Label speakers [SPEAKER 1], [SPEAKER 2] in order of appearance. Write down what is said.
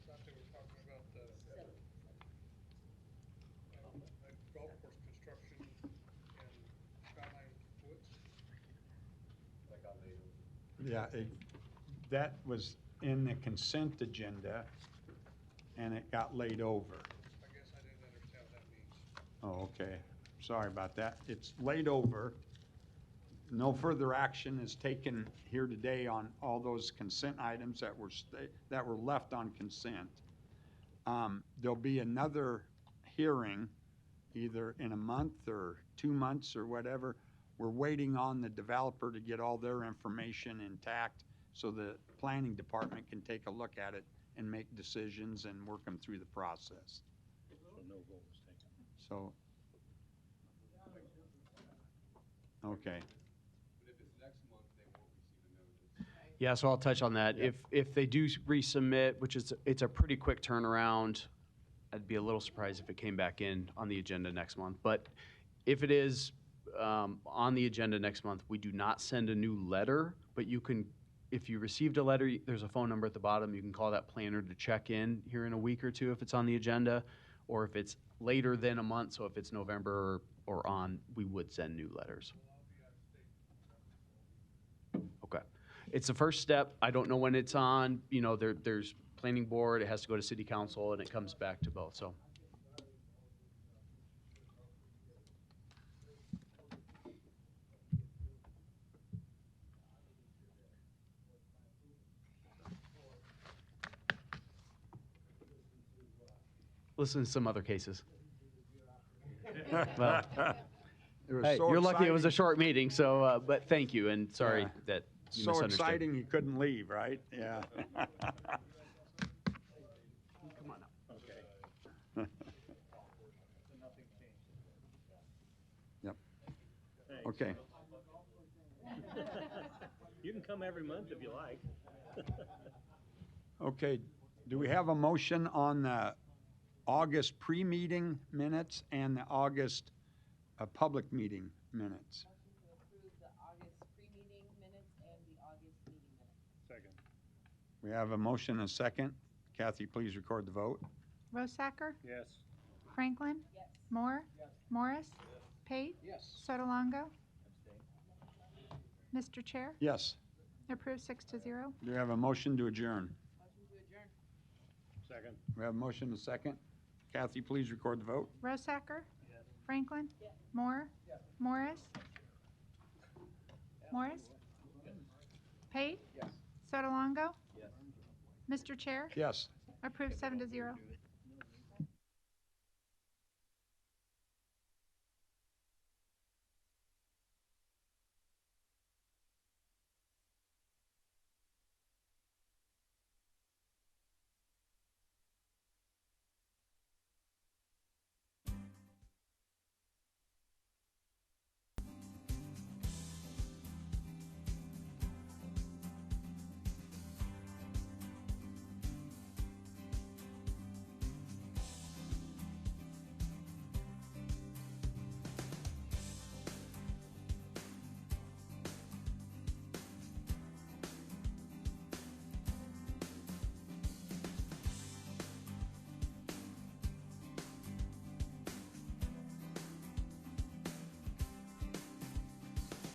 [SPEAKER 1] uh,
[SPEAKER 2] Yeah, it- that was in the consent agenda, and it got laid over.
[SPEAKER 1] I guess I didn't understand what that means.
[SPEAKER 2] Oh, okay, sorry about that. It's laid over. No further action is taken here today on all those consent items that were, sta- that were left on consent. Um, There'll be another hearing, either in a month or two months or whatever. We're waiting on the developer to get all their information intact so the planning department can take a look at it and make decisions and work them through the process. So. Okay,
[SPEAKER 1] But if it's next month, they won't receive a notice.
[SPEAKER 3] Yeah, so I'll touch on that. If, if they do resubmit, which is, it's a pretty quick turnaround, I'd be a little surprised if it came back in on the agenda next month. But if it is um, on the agenda next month, we do not send a new letter, but you can, if you received a letter, y- there's a phone number at the bottom. You can call that planner to check in here in a week or two if it's on the agenda, or if it's later than a month, so if it's November or or on, we would send new letters. Okay. It's the first step. I don't know when it's on. You know, there, there's planning board, it has to go to city council, and it comes back to both, so. Listen to some other cases. Well.
[SPEAKER 2] It was
[SPEAKER 3] Hey,
[SPEAKER 2] so
[SPEAKER 3] you're lucky it was a
[SPEAKER 2] exciting-
[SPEAKER 3] short meeting, so, uh, but thank you, and sorry
[SPEAKER 2] Yeah.
[SPEAKER 3] that you
[SPEAKER 2] So
[SPEAKER 3] misunderstood.
[SPEAKER 2] exciting, you couldn't leave, right? Yeah. Yep.
[SPEAKER 4] Thanks.
[SPEAKER 2] Okay,
[SPEAKER 4] You can come every month if you like.
[SPEAKER 2] okay. Do we have a motion on the August pre-meeting minutes and the August uh, public meeting minutes?
[SPEAKER 5] Motion to approve the August pre-meeting minutes and the August meeting minutes.
[SPEAKER 4] Second.
[SPEAKER 2] We have a motion and a second. Kathy, please record the vote.
[SPEAKER 6] Rosacker,
[SPEAKER 4] Yes.
[SPEAKER 6] Franklin,
[SPEAKER 5] Yes.
[SPEAKER 6] Moore, Morris, Pate,
[SPEAKER 1] Yes.
[SPEAKER 6] Sotolongo. Mr. Chair,
[SPEAKER 2] Yes,
[SPEAKER 6] approved six to zero.
[SPEAKER 2] do we have a motion to adjourn?
[SPEAKER 5] Motion to adjourn.
[SPEAKER 4] Second.
[SPEAKER 2] We have a motion and a second. Kathy, please record the vote.
[SPEAKER 6] Rosacker, Franklin, Moore, Morris, Morris, Pate, Sotolongo. Mr. Chair,
[SPEAKER 2] Yes.
[SPEAKER 6] approved seven to zero.